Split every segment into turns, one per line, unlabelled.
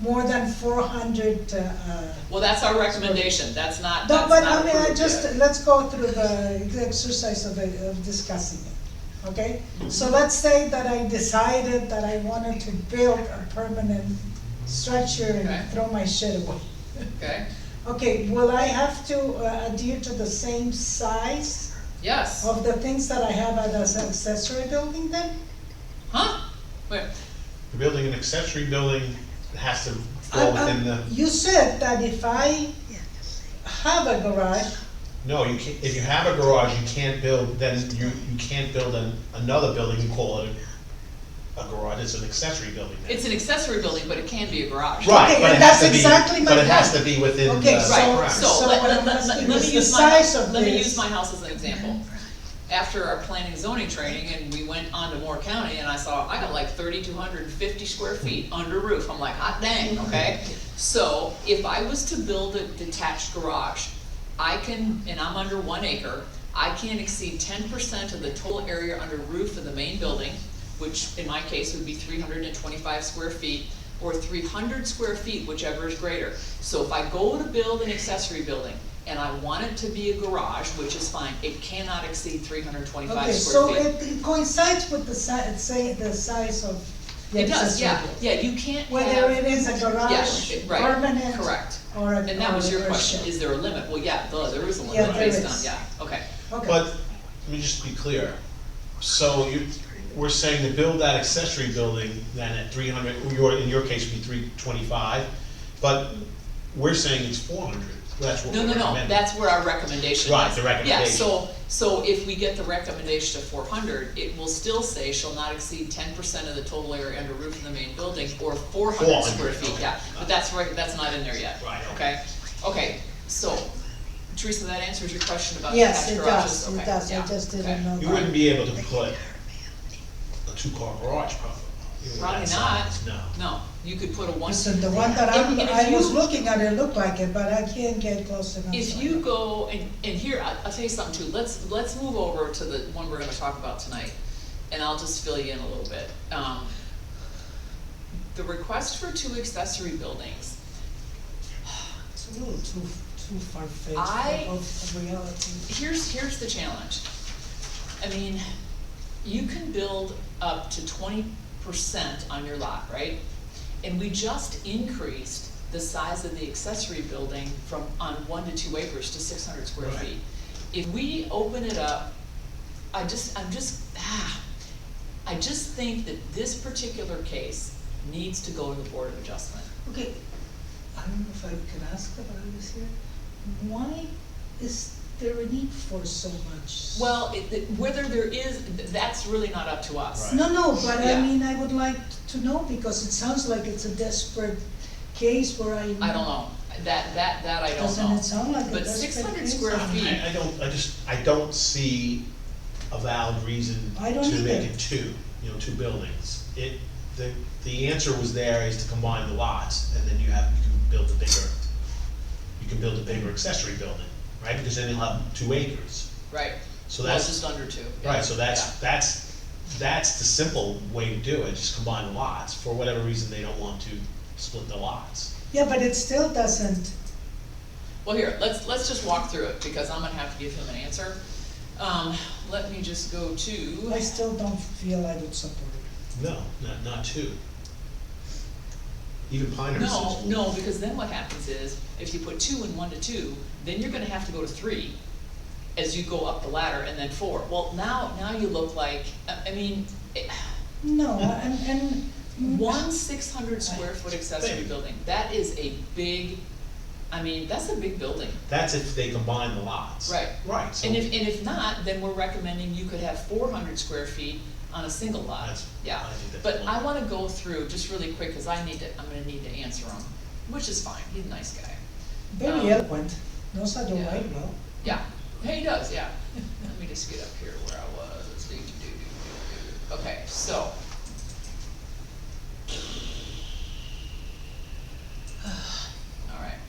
more than four hundred, uh, uh,
Well, that's our recommendation, that's not,
no,
that's
but
not
I mean, I
approved
just,
yet.
let's go through the the exercise of, it- of discussing it, okay? So let's say that I decided that I wanted to build a permanent structure
Okay.
and throw my shit away.
Okay,
Okay, will I have to uh, adhere to the same size
yes,
of the things that I have as an accessory building then?
huh? Wait,
Building an accessory building has to
I-
fall
I-
within the,
You said that if I have a garage,
no, you can't, if you have a garage, you can't build, then you, you can't build an, another building and call it a a garage, it's an accessory building then.
it's an accessory building, but it can be a garage.
Right,
Okay,
but
and
it has
that's
to be,
exactly my
but it has
point.
to be within the.
Okay,
Right,
Correct.
so
So
let,
what
let,
I'm
let,
asking
let
is
me
the
use my,
size of
let me
this.
use my house as an example. After our planning and zoning training and we went on to Moore County and I saw, I got like thirty-two hundred and fifty square feet under roof, I'm like, hot dang,
Mm-hmm.
okay? So if I was to build a detached garage, I can, and I'm under one acre, I can't exceed ten percent of the total area under roof of the main building, which in my case would be three hundred and twenty-five square feet, or three hundred square feet, whichever is greater. So if I go to build an accessory building, and I want it to be a garage, which is fine, it cannot exceed three hundred
okay,
twenty-five square
so
feet.
it it coincides with the si- say, the size of the
It
accessory
does, yeah,
building.
yeah, you can't have.
Whether it is a
Yes,
garage,
it- right,
permanent, or
correct.
a, or a
And that was your
or a
question,
shed.
is there a limit? Well, yeah, duh, there is a
Yeah,
limit
there
based
is.
on, yeah, okay.
Okay.
But, let me just be clear, so you, we're saying to build that accessory building then at three hundred, your, in your case would be three twenty-five, but we're saying it's four hundred, that's what we're
No, no,
recommending.
no, that's where our recommendation is.
Right, the
Yeah,
recommendation.
so, so if we get the recommendation to four hundred, it will still say shall not exceed ten percent of the total area under roof of the main building, or four hundred square
400,
feet,
okay.
yeah, but that's right, that's not in there yet.
Right,
Okay, okay, so, Teresa, that answers your question about
Yes,
detached
it
garages,
does,
okay,
it does, I
yeah,
just
okay.
didn't know
You
that.
wouldn't be able to put a two-car garage, probably. You know,
Probably
that
not.
size, No.
No, you could put a one.
Listen, the one that I'm,
And- and if
I was
you-
looking at, it looked like it, but I can't get close enough.
If
so-
you go, and, and here, I- I'll tell you something too, let's, let's move over to the one we're gonna talk about tonight, and I'll just fill you in a little bit. Um, The request for two accessory buildings,
It's a little too, too far-fetched
I-
of reality.
here's, here's the challenge. I mean, you can build up to twenty percent on your lot, right? And we just increased the size of the accessory building from, on one to two acres to six hundred square
Right.
feet. If we open it up, I just, I'm just, ah, I just think that this particular case needs to go to the Board of Adjustment.
Okay, I don't know if I can ask about this here. Why is there a need for so much?
Well, it- it- whether there is, th- that's really not up to us.
Right.
No, no, but I
Yeah.
mean, I would like to know because it sounds like it's a desperate case where I.
I don't know, that, that, that I don't
Doesn't
know.
it sound like a
But
desperate
six hundred
case?
square feet,
I, I don't, I just, I don't see a valid reason
I don't
to make
either.
it two, you know, two buildings. It, the, the answer was there is to combine the lots, and then you have, you can build a bigger, you can build a bigger accessory building, right? Because then you'll have two acres.
right,
So
well, it's
that's,
just under two. yeah,
Right, so that's,
yeah.
that's, that's the simple way to do it, just combine the lots, for whatever reason they don't want to split the lots.
Yeah, but it still doesn't,
Well, here, let's, let's just walk through it, because I'm gonna have to give him an answer. Um, let me just go
I
to,
still don't feel I would support it.
No, not, not two. Even Pinehurst is.
no, no, because then what happens is, if you put two and one to two, then you're gonna have to go to three as you go up the ladder, and then four. Well, now, now you look like, I, I mean, eh, it-
No,
Mm.
and, and.
One six hundred square foot accessory
Big.
building, that is a big, I mean, that's a big building.
That's if they combine the lots.
Right.
Right, so.
And if, and if not, then we're recommending you could have four hundred square feet on a single lot,
That's-
yeah.
I think that's
But
fine.
I wanna go through just really quick, cause I need to, I'm gonna need to answer him, which is fine, he's a nice guy.
Very
um,
eloquent, knows how to
yeah.
write well.
Yeah, he does, yeah. Let me just get up here where I was. Do, do, do, do, do, do. Okay, so. Alright.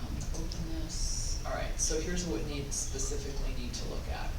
I'm gonna open this. Alright, so here's what we need, specifically need to look at.